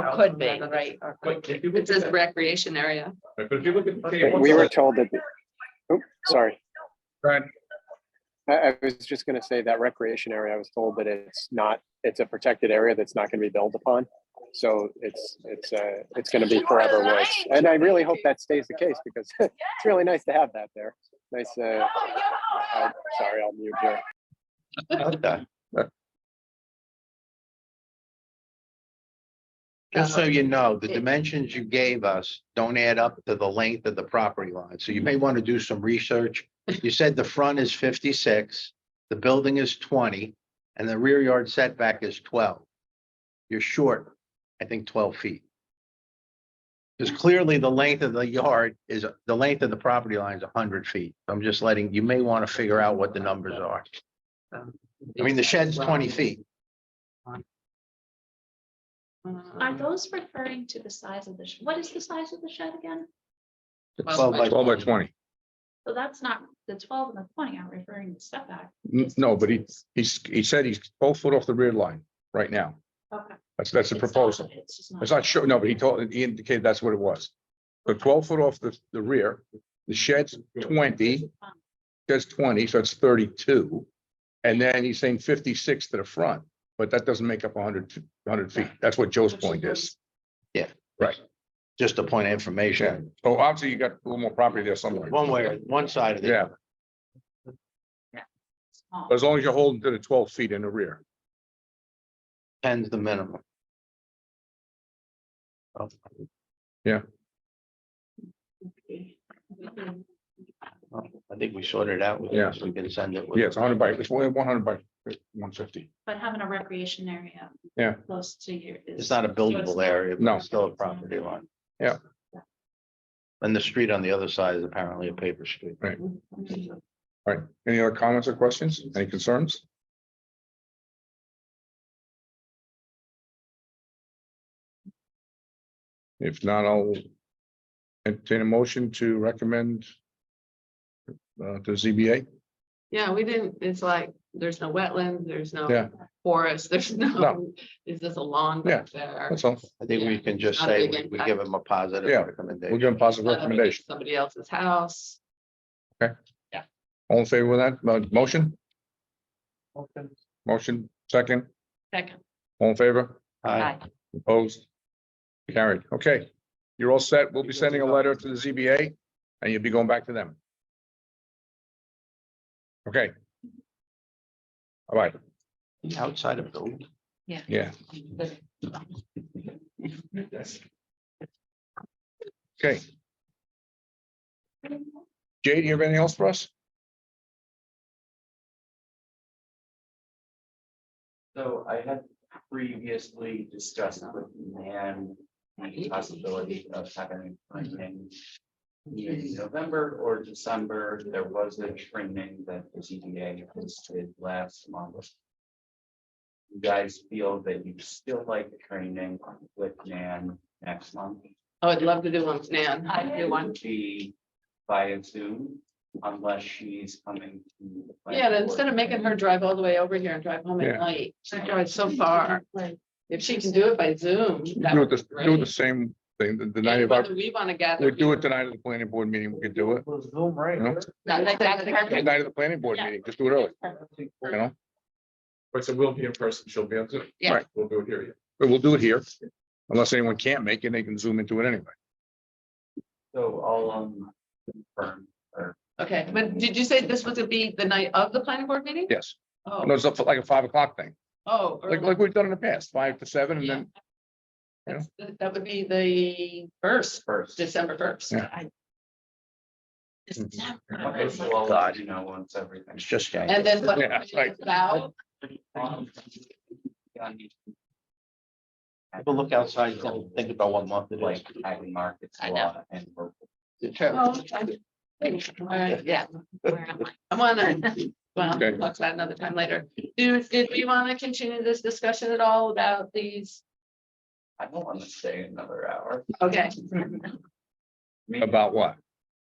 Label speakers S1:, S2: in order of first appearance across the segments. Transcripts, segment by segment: S1: Or
S2: house
S1: could
S2: on
S1: be,
S2: the back of the-
S1: right, or could
S2: But
S1: be.
S2: if you
S3: It
S2: look
S3: says
S2: at that-
S3: recreation area.
S2: right, But if you look at the
S4: Okay,
S2: table.
S4: We were told that, the- oop, sorry,
S2: Right,
S4: I, I was just gonna say that recreation area, I was told that it's not, it's a protected area that's not gonna be built upon. So it's, it's, uh, it's gonna be forever woods. And I really hope that stays the case because it's really nice to have that there. Nice, uh, I'm sorry, I'll mute here.
S5: Okay.
S2: Right.
S5: Just so you know, the
S1: it-
S5: dimensions you gave us don't add up to the length of the property line, so you may want to do some research. You said the front is fifty-six, the building is twenty, and the rear yard setback is twelve. You're short, I think, twelve feet. Because clearly the length of the yard is, the length of the property line is hundred feet. I'm just letting, you may want to figure out what the numbers are. I mean, the shed's twenty feet.
S3: uh,
S2: Um,
S6: Are those referring to the size of the, sh- what is the size of the shed again?
S5: Twelve by
S2: Twelve by twenty.
S6: So that's not, the twelve and the twenty aren't referring to step back.
S2: N- No, but he, he's, he said he's twelve foot off the rear line right now.
S6: Okay.
S2: That's, that's the
S6: It's not-
S2: proposal.
S6: It's just
S2: It's not sure, no, but he told, he indicated that's what it was. So twelve foot off the, the rear, the shed's twenty, that's twenty, so it's thirty-two. And then he's saying fifty-six to the front, but that doesn't make up hundred, hundred feet. That's what Joe's point is.
S5: Just a point of information,
S2: So obviously you got a little more property there somewhere.
S5: one way, or one side of the.
S2: Yeah,
S6: Small.
S2: as long as you're holding to the twelve feet in the rear.
S5: Tens the minimum. I think we sorted it out with
S2: Yeah.
S5: this. We can send it. with-
S2: Yeah, it's hundred by, it's one hundred by one fifty.
S6: But having a recreation area.
S2: Yeah.
S6: Close to your.
S5: It's not a buildable area. but
S2: No.
S5: it's Still a property line.
S2: Yeah.
S5: And the street on the other side is apparently a paper street.
S6: Mm-hmm.
S2: All right, any other comments or questions? Any concerns? If not, I'll entertain a motion to recommend uh, to ZBA.
S3: Yeah, we didn't, it's like, there's no wetlands, there's
S2: Yeah.
S3: no forest, there's no,
S2: No.
S3: is this a lawn
S2: Yeah,
S3: back there?
S2: That's all.
S5: I think we can just
S3: Not a
S5: say
S3: big
S5: we- we
S3: impact.
S5: give them a positive
S2: Yeah. We're
S5: recommendation.
S2: giving positive
S3: Not up
S2: recommendation.
S3: against Somebody else's house.
S2: All in favor of that, uh, motion? Motion, second,
S3: Second.
S2: all in favor?
S5: Aye.
S2: Opposed? Carried. Okay, you're all set. We'll be sending a letter to the ZBA and you'll be going back to them. Okay. All right,
S5: Outside of building.
S2: yeah.
S3: Oh,
S2: Okay. Jay, do you have anything else for us?
S7: So I had previously discussed with Nan the possibility of having training in November or December. There was a training that the CDA hosted last month. You guys feel that you still like the training with Nan next month?
S3: Oh, I'd love to do one, Nan. I'd do
S7: It
S3: one.
S7: would be via Zoom unless she's coming. to the planning
S3: Yeah, and instead of
S7: board.
S3: making her drive all the way over here and drive home
S2: Yeah.
S3: at night, she drives so far. If she can do it by Zoom. that
S2: Do
S3: would
S2: it
S3: be
S2: the, do it the
S3: great.
S2: same thing, the- the night
S3: And
S2: of our,
S3: Whether we want to gather.
S2: we do it tonight of the planning board meeting, we could do it.
S7: We'll Zoom right
S2: No.
S7: here.
S3: No, that- that's
S2: The
S3: perfect.
S2: Night of the planning board
S3: Yeah.
S2: meeting, just do it early, you know,
S8: But so we'll be in person, she'll be on Zoom.
S3: Yeah.
S2: Right.
S8: We'll do it here. yeah.
S2: but we'll do it here. Unless anyone can't make it, they can zoom into it anyway.
S7: So I'll um confirm or
S3: Okay, but did you say this was to be the night of the planning board meeting?
S2: Yes, no,
S3: Oh,
S2: it's up for like a five o'clock thing,
S3: oh.
S2: like,
S3: early.
S2: like we've done in the past, five to seven and
S3: Yeah.
S2: then,
S3: That's- That that would be the first,
S7: first.
S3: December first.
S2: Yeah. Mm-hmm.
S7: Okay,
S3: December.
S7: so I'll
S5: God.
S7: let you know once everything.
S5: It's just. getting-
S3: And then what?
S2: Yeah,
S3: it's
S2: right.
S3: About,
S7: Um, yeah,
S5: Have a look outside, and think about what month it is.
S7: Like ag markets
S3: I
S7: a
S3: know.
S7: lot and we're
S3: oh, I- all right, yeah, I wanna, well,
S2: Okay.
S3: we'll talk about another time later. Do, did we wanna continue this discussion at all about these?
S7: I don't want to stay another hour.
S3: Okay,
S7: Me-
S2: about what?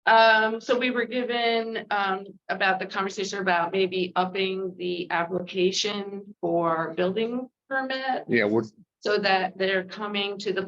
S3: um, so we were given, um, about the conversation about maybe upping the application for building permit.
S2: Yeah, we're,
S3: So that they're coming to the